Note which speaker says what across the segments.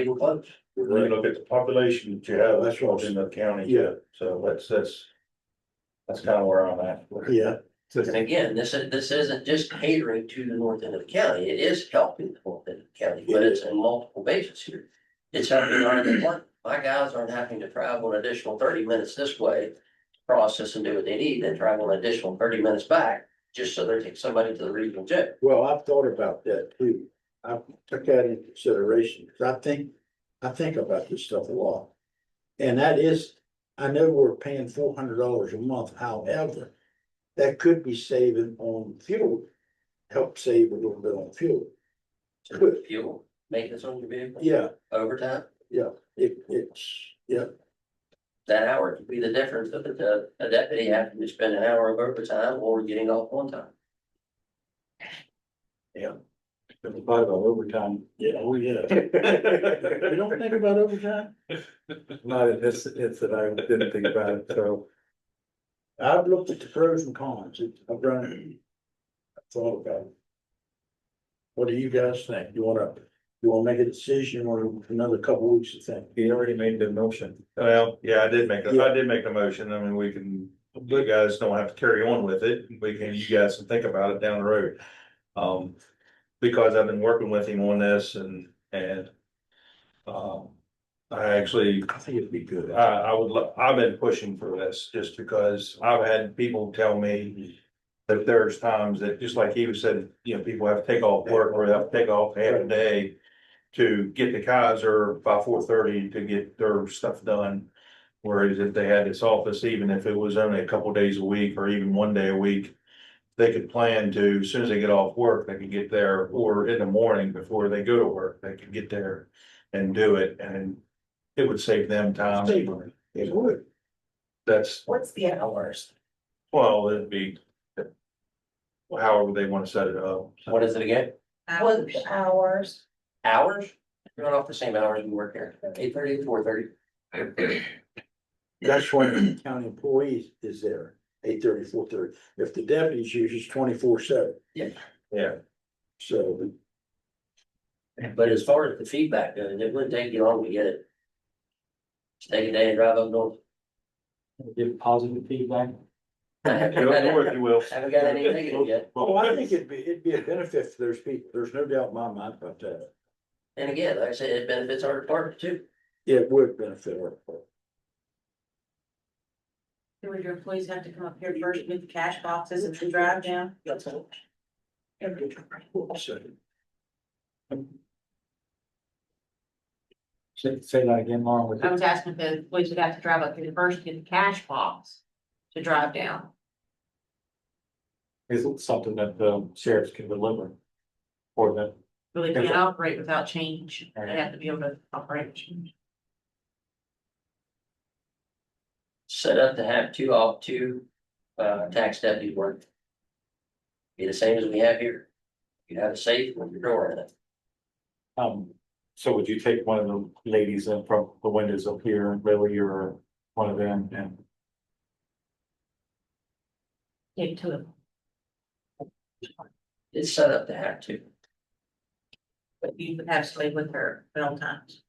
Speaker 1: People vote.
Speaker 2: When you look at the population that you have, that's all in the county.
Speaker 3: Yeah.
Speaker 2: So that's, that's. That's kind of where I'm at.
Speaker 3: Yeah.
Speaker 1: And again, this is, this isn't just catering to the north end of the county, it is helping the north end of the county, but it's in multiple bases here. It's helping our department, my guys aren't having to travel an additional thirty minutes this way. to Process and do what they need, then travel an additional thirty minutes back, just so they take somebody to the regional jail.
Speaker 3: Well, I've thought about that too. I took that into consideration, because I think, I think about this stuff a lot. And that is, I know we're paying four hundred dollars a month, however, that could be saving on fuel. Help save a little bit on fuel.
Speaker 1: So the Fuel, maintenance on your vehicle,
Speaker 3: Yeah,
Speaker 1: overtime,
Speaker 3: it, it's, yeah,
Speaker 1: that hour could be the difference of the, a deputy having to spend an hour of overtime or getting off on time.
Speaker 2: Fifty-five on overtime.
Speaker 3: yeah, oh, yeah. You don't think about overtime?
Speaker 4: Not in this incident, I didn't think about it, so.
Speaker 3: I've looked at the pros and cons, It- I've run. it. I've Thought about it. What do you guys think? You wanna, you wanna make a decision or another couple weeks to think?
Speaker 4: He already made the motion.
Speaker 2: Well, yeah, I did make, a- I did make a motion. I mean, we can, you guys don't have to carry on with it. We can, you guys can think about it down the road. Um, because I've been working with him on this and, and. Um, I actually
Speaker 3: I think it'd be good.
Speaker 2: I, I would, lo- I've been pushing for this just because I've had people tell me that there's times that, just like he was said, you know, people have to take off work or have to take off half a day to get to Kaiser by four thirty to get their stuff done. Whereas if they had this office, even if it was only a couple days a week or even one day a week, they could plan to, as soon as they get off work, they could get there or in the morning before they go to work, they could get there and do it and it would save them time.
Speaker 3: Save It would.
Speaker 2: That's,
Speaker 5: What's the hours?
Speaker 2: well, it'd be. However they wanna set it up.
Speaker 1: What is it again?
Speaker 5: What's the hours?
Speaker 1: hours, we're not off the same hours we work here, eight thirty to four thirty.
Speaker 3: That's when county employees is there, eight thirty, four thirty. If the deputies use it's twenty four seven,
Speaker 2: Yeah,
Speaker 3: so.
Speaker 1: But as far as the feedback goes, it wouldn't take you long to get it. Just take a day and drive up north.
Speaker 4: Give positive feedback.
Speaker 1: I
Speaker 2: go
Speaker 1: Haven't got
Speaker 2: north
Speaker 1: any-
Speaker 2: you will.
Speaker 1: haven't got any negative yet,
Speaker 3: Well, I think it'd be, it'd be a benefit for those people. There's no doubt in my mind uh, about that.
Speaker 1: and again, like I said, it benefits our department too.
Speaker 3: It would benefit our.
Speaker 5: Do your employees have to come up here first with the cash boxes and then drive down?
Speaker 4: Say, say that again, Mara, with
Speaker 5: I was asking if the employees would have to drive up here first to get the cash box to drive down.
Speaker 4: Is something that the sheriffs can deliver. For them.
Speaker 5: Really
Speaker 4: Yes,
Speaker 5: can't
Speaker 4: sir.
Speaker 5: operate without change. They
Speaker 4: Alright.
Speaker 5: have to be able to operate. with change.
Speaker 1: Set up to have two off, two, uh, tax deputies work. Be the same as we have here. You have a safe with your door in it.
Speaker 4: Um, so would you take one of the ladies in from the windows up here and really you're one of them and
Speaker 5: Get to them.
Speaker 1: It's set up to have two.
Speaker 5: But you would have to stay with her at all times.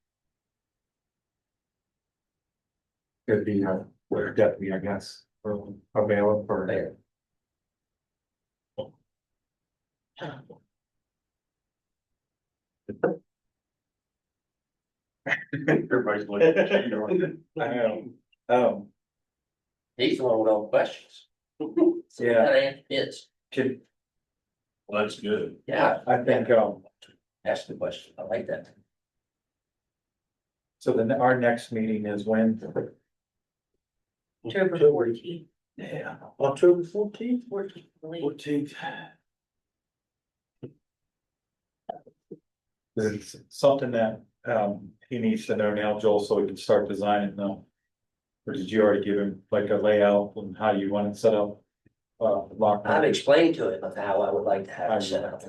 Speaker 4: it'd be her, her deputy, I guess, or a bailiff or.
Speaker 2: Everybody's looking.
Speaker 4: Um,
Speaker 1: He's the one with all the questions.
Speaker 4: yeah,
Speaker 1: It's,
Speaker 4: can-
Speaker 2: Well, that's good.
Speaker 1: yeah,
Speaker 4: I think, um.
Speaker 1: ask the question. I like that.
Speaker 4: So then our next meeting is when?
Speaker 5: October fourteenth,
Speaker 4: Yeah.
Speaker 3: October fourteenth?
Speaker 5: fourteenth, I believe.
Speaker 4: Fourteenth. There's something that um he needs to know now, Joel, so we can start designing now. Or did you already give him like a layout and how you want it set up? Uh, lock.
Speaker 1: I've explained to him of how I would like to have it set up.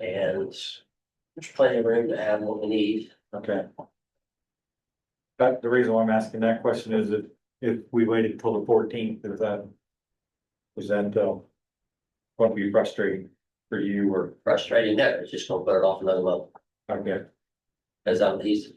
Speaker 1: And there's plenty of room to have what we need.
Speaker 4: Okay. But the reason why I'm asking that question is if if we waited till the fourteenth, is that? Is that uh? Won't be frustrating for you or,
Speaker 1: Frustrating, no, it's just gonna put it off another month.
Speaker 4: okay,
Speaker 1: Cause I'm, he's,